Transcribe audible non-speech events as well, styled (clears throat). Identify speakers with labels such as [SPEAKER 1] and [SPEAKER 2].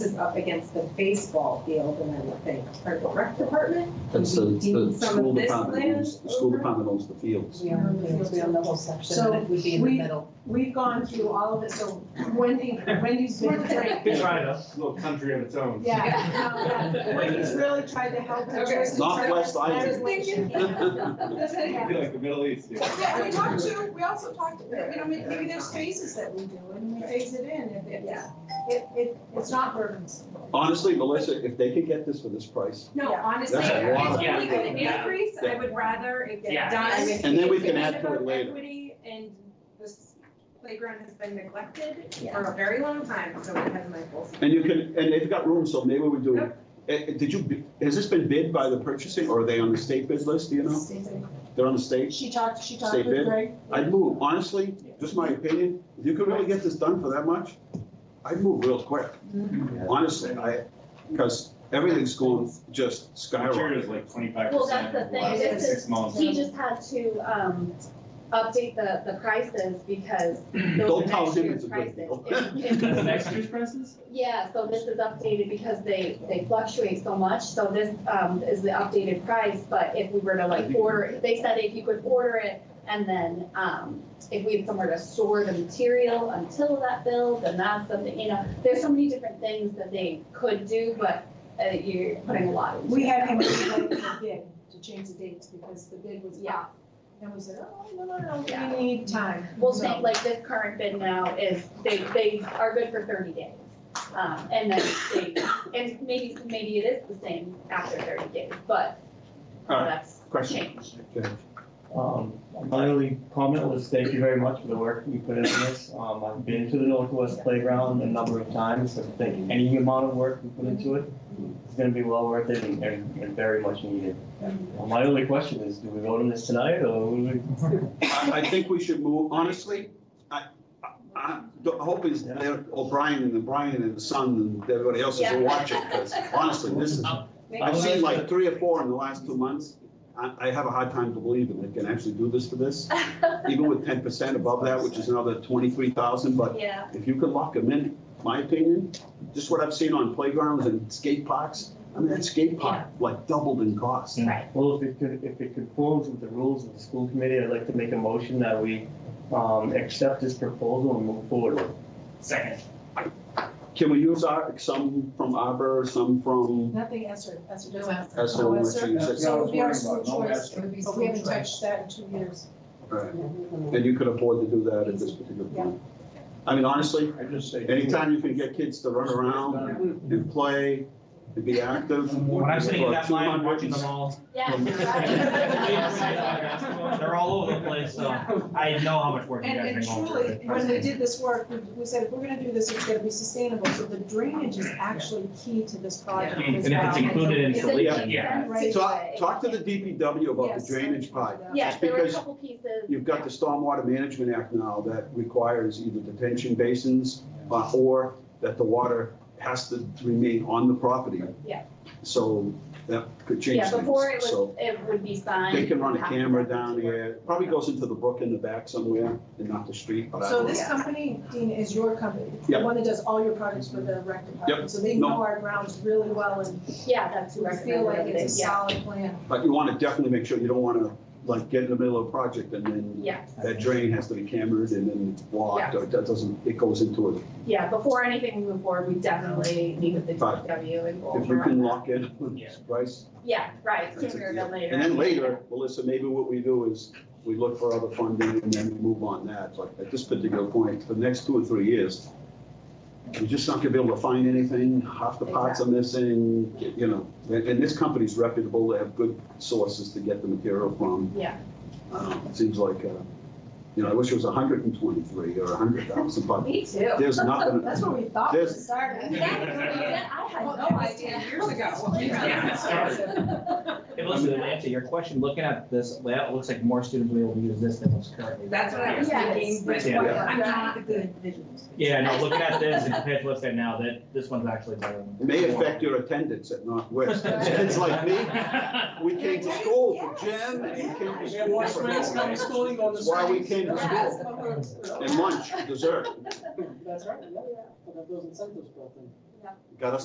[SPEAKER 1] up against the baseball field and I would think, our rec department? (laughs)
[SPEAKER 2] That's the,
[SPEAKER 1] Would we
[SPEAKER 2] the
[SPEAKER 1] deem some
[SPEAKER 2] school
[SPEAKER 1] of this
[SPEAKER 2] department,
[SPEAKER 1] land
[SPEAKER 2] owns- the school
[SPEAKER 1] over?
[SPEAKER 2] department owns the fields.
[SPEAKER 3] We are, we own the whole section,
[SPEAKER 1] So
[SPEAKER 3] and it would be in the
[SPEAKER 1] we-
[SPEAKER 3] middle.
[SPEAKER 1] We've gone through all of it, so Wendy, Wendy's been great.
[SPEAKER 4] Been trying to.
[SPEAKER 5] little country of its own.
[SPEAKER 6] um,
[SPEAKER 1] Yeah, no, Wendy's really tried to help. the
[SPEAKER 3] Okay.
[SPEAKER 1] tourists.
[SPEAKER 2] Northwest
[SPEAKER 1] I was (laughs)
[SPEAKER 2] Island.
[SPEAKER 1] thinking-
[SPEAKER 5] It'd be like the Middle East. yeah.
[SPEAKER 6] Yeah, we talked to, we also talked, you know, maybe maybe there's phases that we do, and we phase it in, if it's, it, it, it's not burdensome.
[SPEAKER 2] Honestly, Melissa, if they could get this for this price,
[SPEAKER 1] No, honestly,
[SPEAKER 2] That's a lot
[SPEAKER 1] if
[SPEAKER 2] of
[SPEAKER 1] we could
[SPEAKER 4] work. Yeah.
[SPEAKER 1] increase, I would rather it
[SPEAKER 4] Yeah.
[SPEAKER 1] get done.
[SPEAKER 3] I mean,
[SPEAKER 2] And then we
[SPEAKER 1] It's
[SPEAKER 2] can
[SPEAKER 1] a
[SPEAKER 2] add
[SPEAKER 1] matter
[SPEAKER 2] to it
[SPEAKER 1] of
[SPEAKER 2] later.
[SPEAKER 1] Equity and this playground has been neglected for a very long time, so it has my full. support.
[SPEAKER 2] and you can, and they've got room, so maybe we do.
[SPEAKER 1] Yep.
[SPEAKER 2] Eh, eh, Did you, bi- has this been bid by the purchasing, or are they on the state bid list, do you know? They're on the state?
[SPEAKER 6] She talked, she
[SPEAKER 2] talked Stay with fit.
[SPEAKER 6] Greg.
[SPEAKER 2] I'd move, honestly, just my opinion, if you could really get this done for that much, I'd move real quick.
[SPEAKER 1] Mm-hmm.
[SPEAKER 2] Honestly, I, because everything's going just
[SPEAKER 5] Materials
[SPEAKER 2] skyrocketing.
[SPEAKER 5] like twenty-five
[SPEAKER 7] Well, that's
[SPEAKER 5] percent
[SPEAKER 7] the
[SPEAKER 5] over the
[SPEAKER 7] thing,
[SPEAKER 5] last
[SPEAKER 7] this
[SPEAKER 5] six months.
[SPEAKER 7] He just had to, um, update the, the prices
[SPEAKER 2] (clears throat)
[SPEAKER 7] because those
[SPEAKER 2] Don't
[SPEAKER 7] are
[SPEAKER 2] tell
[SPEAKER 7] next
[SPEAKER 2] him it's
[SPEAKER 7] year's
[SPEAKER 2] a good
[SPEAKER 7] prices.
[SPEAKER 2] deal. (laughs)
[SPEAKER 7] It- it-
[SPEAKER 4] next year's
[SPEAKER 7] (laughs)
[SPEAKER 4] prices?
[SPEAKER 7] Yeah, so this is updated because they, they fluctuate so much, so this, um, is the updated price, but if we were to like order, they said if you could order it, and then, um, if we had somewhere to store the material until that build, and that's something, you know, there's so many different things that they could do, but, uh, you're putting a lot. into
[SPEAKER 6] We
[SPEAKER 7] it.
[SPEAKER 6] had him rewrite the bid to change the dates because the bid was out. And we said, oh, no, no,
[SPEAKER 7] Yeah.
[SPEAKER 6] no, we need time.
[SPEAKER 7] Well,
[SPEAKER 6] So-
[SPEAKER 7] think like this current bid now is, they, they are good for thirty days. Um, and then they, and maybe, maybe it is the same after thirty days, but
[SPEAKER 2] All
[SPEAKER 7] that's (laughs)
[SPEAKER 2] Question.
[SPEAKER 7] changed.
[SPEAKER 8] Um, My only comment was thank you very much for the work you put into this. Um, I've been to the Northwest Playground a number of times, so thank any amount of work you put into it. It's gonna be well worth it and, and and very much needed. Uh, My only question is, do we vote on this tonight or? will we-
[SPEAKER 2] I, I think we should move, honestly, I, I- I, the hope is that O'Brien and the Brian and the son and everybody else is
[SPEAKER 7] Yeah.
[SPEAKER 2] watching, because honestly, this is, I've seen like three or four in the last two months. I, I have a hard time to believe that they can actually do this for this, even with ten percent above that, which is another twenty-three thousand, but
[SPEAKER 7] Yeah,
[SPEAKER 2] if you could lock them in, my opinion, just what I've seen on playgrounds and skate parks, I mean, that skate park like doubled in cost.
[SPEAKER 7] right.
[SPEAKER 8] Well, if it could, if it conforms with the rules of the school committee, I'd like to make a motion that we, um, accept this proposal and move forward. with it.
[SPEAKER 4] Second.
[SPEAKER 2] Can we use our, some from Arbor, some from
[SPEAKER 6] Nothing Esser, Esser doesn't. have to-
[SPEAKER 2] Esser,
[SPEAKER 6] No
[SPEAKER 2] which
[SPEAKER 6] Esser.
[SPEAKER 2] you said-
[SPEAKER 6] So it would be our
[SPEAKER 4] That's what
[SPEAKER 6] school
[SPEAKER 4] I'm talking about, no
[SPEAKER 6] choice,
[SPEAKER 4] Esser.
[SPEAKER 6] but we haven't touched that in two years.
[SPEAKER 2] Right. And you could afford to do that at this particular point. I mean, honestly,
[SPEAKER 5] I just say.
[SPEAKER 2] anytime you can get kids to run around and play, and be active.
[SPEAKER 4] When I'm sitting in that
[SPEAKER 2] for
[SPEAKER 4] line, I'm
[SPEAKER 2] 200
[SPEAKER 4] watching them all.
[SPEAKER 7] Yeah. (laughs)
[SPEAKER 4] They're all over the place, so I know how much work you
[SPEAKER 6] And, and
[SPEAKER 4] guys bring home.
[SPEAKER 6] truly, when we did this work, we- we said, if we're gonna do this, it's gonna be sustainable, so the drainage is actually key to this project
[SPEAKER 4] And
[SPEAKER 6] as
[SPEAKER 4] if it's
[SPEAKER 6] well.
[SPEAKER 4] included in
[SPEAKER 7] (laughs) It's
[SPEAKER 4] the
[SPEAKER 7] an
[SPEAKER 4] lease, yeah.
[SPEAKER 7] expensive
[SPEAKER 2] Talk,
[SPEAKER 7] way.
[SPEAKER 2] talk to the DPW about the
[SPEAKER 6] Yes.
[SPEAKER 2] drainage part.
[SPEAKER 7] Yeah, there were a
[SPEAKER 2] because
[SPEAKER 7] couple pieces.
[SPEAKER 2] You've got the Stormwater Management Act now that requires either detention basins uh, or that the water has to remain on the property.
[SPEAKER 7] Yeah.
[SPEAKER 2] So that could change
[SPEAKER 7] Yeah, before it
[SPEAKER 2] things.
[SPEAKER 7] was,
[SPEAKER 2] So
[SPEAKER 7] it would be signed.
[SPEAKER 2] they can run a
[SPEAKER 7] Have to
[SPEAKER 2] camera
[SPEAKER 7] work
[SPEAKER 2] down
[SPEAKER 7] to work.
[SPEAKER 2] here, probably goes into the brook in the back somewhere and not the street, but I
[SPEAKER 6] So
[SPEAKER 2] don't know.
[SPEAKER 6] this company, Dean, is your company, the
[SPEAKER 2] Yeah.
[SPEAKER 6] one that does all your projects for the rec
[SPEAKER 2] Yep.
[SPEAKER 6] department, so they
[SPEAKER 2] No.
[SPEAKER 6] know our grounds really well and
[SPEAKER 7] Yeah, that's who
[SPEAKER 6] we feel like
[SPEAKER 7] recommended
[SPEAKER 6] it's
[SPEAKER 7] it,
[SPEAKER 6] a
[SPEAKER 7] yeah,
[SPEAKER 6] solid plan.
[SPEAKER 2] But you want to definitely make sure, you don't want to like get in the middle of a project and then
[SPEAKER 7] yeah.
[SPEAKER 2] that drain has to be cambered and then blocked or that doesn't, it goes into it.
[SPEAKER 7] Yeah, before anything we move forward, we definitely meet with the
[SPEAKER 2] Fine.
[SPEAKER 7] DPW and go
[SPEAKER 2] If you
[SPEAKER 7] over
[SPEAKER 2] can
[SPEAKER 7] on that.
[SPEAKER 2] lock in,
[SPEAKER 4] Yeah.
[SPEAKER 2] Bryce.
[SPEAKER 7] Yeah, right,
[SPEAKER 2] That's a
[SPEAKER 7] sooner
[SPEAKER 2] deal.
[SPEAKER 7] than later.
[SPEAKER 2] And then later, Melissa, maybe what we do is we look for other funding and then we move on that. Like at this particular point, for the next two or three years, you're just not gonna be able to find anything. Half the parts are missing, you know. And, and this company's reputable. They have good sources to get the material from.
[SPEAKER 7] Yeah.
[SPEAKER 2] Um, it seems like, uh, you know, I wish it was hundred and twenty-three or hundred thousand, but
[SPEAKER 7] Me too.
[SPEAKER 6] (laughs)
[SPEAKER 2] there's nothing.
[SPEAKER 6] That's what we thought when it
[SPEAKER 2] There's-
[SPEAKER 6] started.
[SPEAKER 7] I had no
[SPEAKER 1] Oh,
[SPEAKER 7] idea.
[SPEAKER 1] Years (laughs) ago.
[SPEAKER 4] Yeah, it started. Hey, listen, Atlanta, your question, looking at this layout, it looks like more students will be able to use this than what's currently.
[SPEAKER 1] That's what I was
[SPEAKER 7] Yes.
[SPEAKER 1] thinking, but
[SPEAKER 4] Yeah.
[SPEAKER 1] I'm not good at visuals.
[SPEAKER 4] Yeah, no, looking at this and compared to what's there now, that, this one's actually better. than-
[SPEAKER 2] It may affect your attendance at Northwest. It's like me, We came to school for gym and we came to school for. That's Why we came to school and lunch, dessert,
[SPEAKER 9] That's right, yeah, but that those incentives built in.
[SPEAKER 2] got us